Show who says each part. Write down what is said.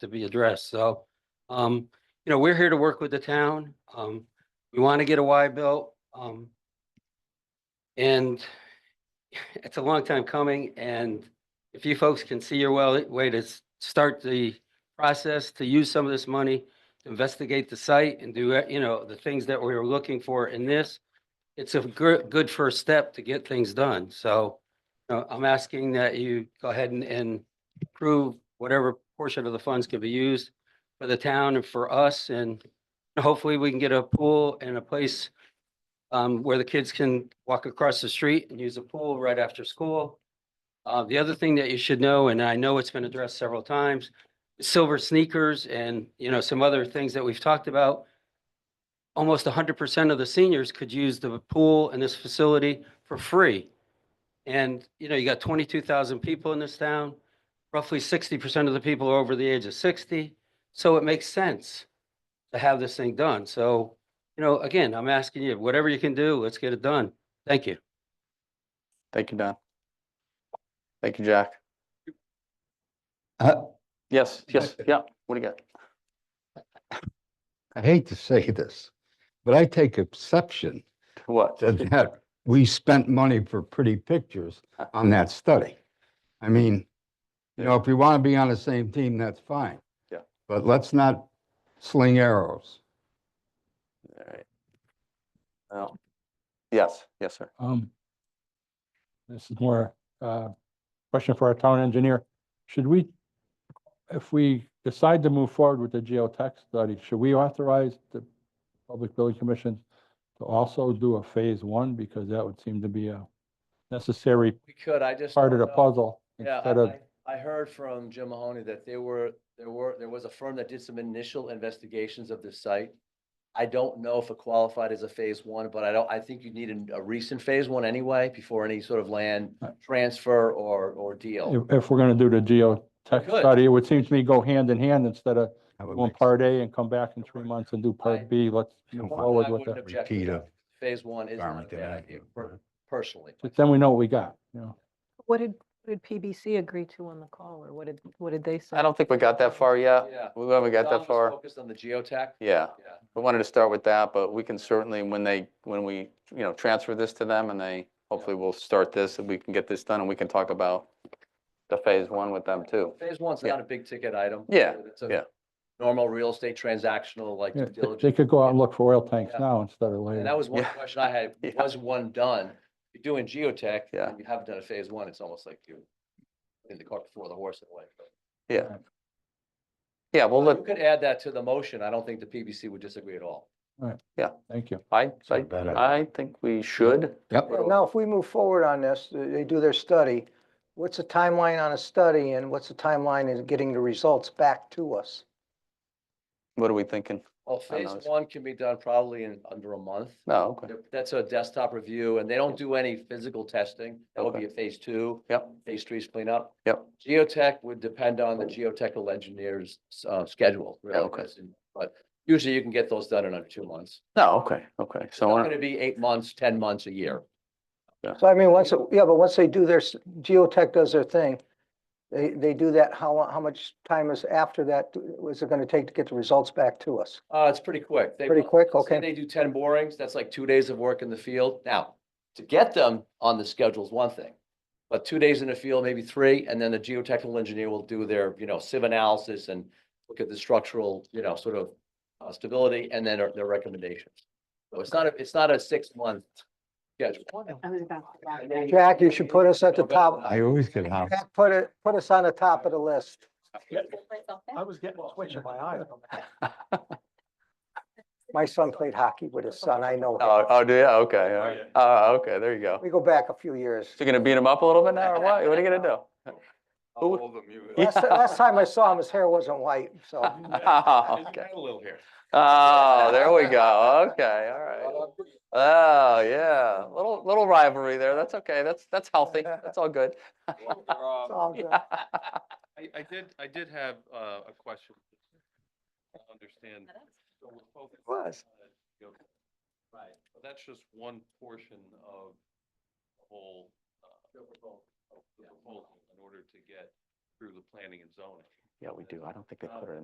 Speaker 1: to be addressed. So, um, you know, we're here to work with the town. Um, we want to get a Y built. Um, and it's a long time coming and if you folks can see your well, way to s- start the process to use some of this money, to investigate the site and do, uh, you know, the things that we were looking for in this, it's a good, good first step to get things done. So uh, I'm asking that you go ahead and, and approve whatever portion of the funds can be used for the town and for us. And hopefully we can get a pool and a place um, where the kids can walk across the street and use a pool right after school. Uh, the other thing that you should know, and I know it's been addressed several times, silver sneakers and, you know, some other things that we've talked about. Almost hundred percent of the seniors could use the pool and this facility for free. And, you know, you got twenty-two thousand people in this town. Roughly sixty percent of the people are over the age of sixty, so it makes sense to have this thing done. So, you know, again, I'm asking you, whatever you can do, let's get it done. Thank you.
Speaker 2: Thank you, Don. Thank you, Jack.
Speaker 3: I
Speaker 2: Yes, yes, yeah. What do you got?
Speaker 3: I hate to say this, but I take exception
Speaker 2: What?
Speaker 3: to that we spent money for pretty pictures on that study. I mean, you know, if we want to be on the same team, that's fine.
Speaker 2: Yeah.
Speaker 3: But let's not sling arrows.
Speaker 2: All right. Well, Oh. yes, yes, sir.
Speaker 4: Um, this is more, uh, question for our town engineer. Should we, if we decide to move forward with the geotech study, should we authorize the Public Building Commission to also do a phase one? Because that would seem to be a necessary
Speaker 5: We could, I just.
Speaker 4: part of
Speaker 5: don't
Speaker 4: the
Speaker 5: know.
Speaker 4: puzzle
Speaker 5: Yeah,
Speaker 4: instead of,
Speaker 5: I, I I heard from Jim Mahoney that there were, there were, there was a firm that did some initial investigations of this site. I don't know if it qualified as a phase one, but I don't, I think you need an- a recent phase one anyway before any sort of land
Speaker 4: Right.
Speaker 5: transfer or, or deal.
Speaker 4: if, if we're gonna do the geotech
Speaker 5: could.
Speaker 4: study, it would seem to me go hand in hand instead of
Speaker 3: That would
Speaker 4: doing
Speaker 3: make
Speaker 4: part A and come back in three months and do
Speaker 5: I-
Speaker 4: part B. Let's
Speaker 3: I
Speaker 4: move
Speaker 3: wouldn't
Speaker 4: forward
Speaker 5: I
Speaker 4: with
Speaker 5: wouldn't
Speaker 4: it.
Speaker 5: object to
Speaker 3: Repeat
Speaker 5: that.
Speaker 3: of
Speaker 5: Phase one is not a
Speaker 3: environment
Speaker 5: bad
Speaker 3: that I-
Speaker 5: idea, per- personally.
Speaker 4: But Then we know what we got, you know?
Speaker 6: What did, what did PBC agree to on the call, or what did, what did they say?
Speaker 2: I don't think we got that far yet.
Speaker 5: Yeah.
Speaker 2: We haven't got
Speaker 5: Don
Speaker 2: that
Speaker 5: was
Speaker 2: far.
Speaker 5: Focused on the geotech.
Speaker 2: Yeah,
Speaker 5: Yeah.
Speaker 2: we wanted to start with that, but we can certainly, when they, when we, you know, transfer this to them and they, hopefully we'll start this and we can get this done and we can talk about the phase one with them too.
Speaker 5: Phase one's
Speaker 2: Yeah.
Speaker 5: not a big ticket item.
Speaker 2: Yeah,
Speaker 5: It's a
Speaker 2: yeah.
Speaker 5: Normal real estate transactional, like
Speaker 4: Yeah, they-
Speaker 5: due
Speaker 4: They
Speaker 5: diligence.
Speaker 4: could go out and look for oil tanks
Speaker 5: Yeah.
Speaker 4: now instead of later.
Speaker 5: And that was one
Speaker 2: Yeah.
Speaker 5: question I had,
Speaker 2: Yeah.
Speaker 5: was one done? You're doing geotech,
Speaker 2: Yeah.
Speaker 5: and you haven't done a phase one, it's almost like you're in the cart before the horse in a way. but-
Speaker 2: Yeah.
Speaker 4: Right.
Speaker 2: Yeah, well, look,
Speaker 5: But You could add that to the motion, I don't think the PBC would disagree at all.
Speaker 4: Thank you.
Speaker 2: I,
Speaker 3: a
Speaker 2: I,
Speaker 3: bad idea.
Speaker 2: I think we should.
Speaker 3: Yep.
Speaker 7: Yeah, Now, if we move forward on this, th- they do their study, what's the timeline on a study and what's the timeline in getting the results back to us?
Speaker 2: What are we thinking?
Speaker 5: Well,
Speaker 2: I know
Speaker 5: phase
Speaker 2: it's-
Speaker 5: one can be done probably in under a month.
Speaker 2: No, Oh, okay.
Speaker 5: They're- That's a desktop review, and they don't do any physical testing, that would be a phase two.
Speaker 2: Yep.
Speaker 5: Phase three's cleanup.
Speaker 2: Yep.
Speaker 5: Geotech would depend on the geotechnical engineer's, uh, schedule. really,
Speaker 2: okay.
Speaker 5: because- But usually you can get those done in under two months.
Speaker 2: No, Oh, okay, okay.
Speaker 5: It's
Speaker 2: So, uh,
Speaker 5: not
Speaker 2: we're-
Speaker 5: gonna be eight months, ten months, a year.
Speaker 7: So I mean, once, it- yeah, but once they do their, s- Geotech does their thing, they, they do that, how, lo- how much time is after that, was it gonna take to get the results back to us?
Speaker 5: Uh, it's pretty quick. They-
Speaker 7: Pretty quick,
Speaker 5: say
Speaker 7: okay.
Speaker 5: They do ten borings, that's like two days of work in the field. Now, to get them on the schedule is one thing. But two days in the field, maybe three, and then the geotechnical engineer will do their, you know, sieve analysis and look at the structural, you know, sort of uh, stability and then their- their recommendations. So it's not, a it's not a six-month schedule.
Speaker 7: Jack, you should put us at the top.
Speaker 3: I always get how,
Speaker 7: Jack, Put it, put us on the top of the list.
Speaker 4: I was getting a twitch in my eye.
Speaker 7: My son played hockey with his son, I know.
Speaker 2: oh,
Speaker 7: him.
Speaker 2: oh, do you? Okay, all right. Oh, okay, there you go. So
Speaker 7: We go back a few years.
Speaker 2: you're gonna beat him up a little bit now or what? What are you gonna do? Who-
Speaker 7: Last, last time I saw him, his hair wasn't white, so.
Speaker 2: Oh, okay.
Speaker 5: A little here.
Speaker 2: Oh, there we go. Okay, all right. Oh, yeah. Little, little rivalry there. That's okay. That's, that's healthy. That's all good.
Speaker 7: it's all good.
Speaker 8: I, I did, I did have uh, a question. to Understand. So we're focused
Speaker 2: was.
Speaker 8: on uh, the yoga. But That's just one portion of the whole. uh, of the proposal In order to get through the planning and zoning.
Speaker 5: Yeah, we do. I don't think they put it in.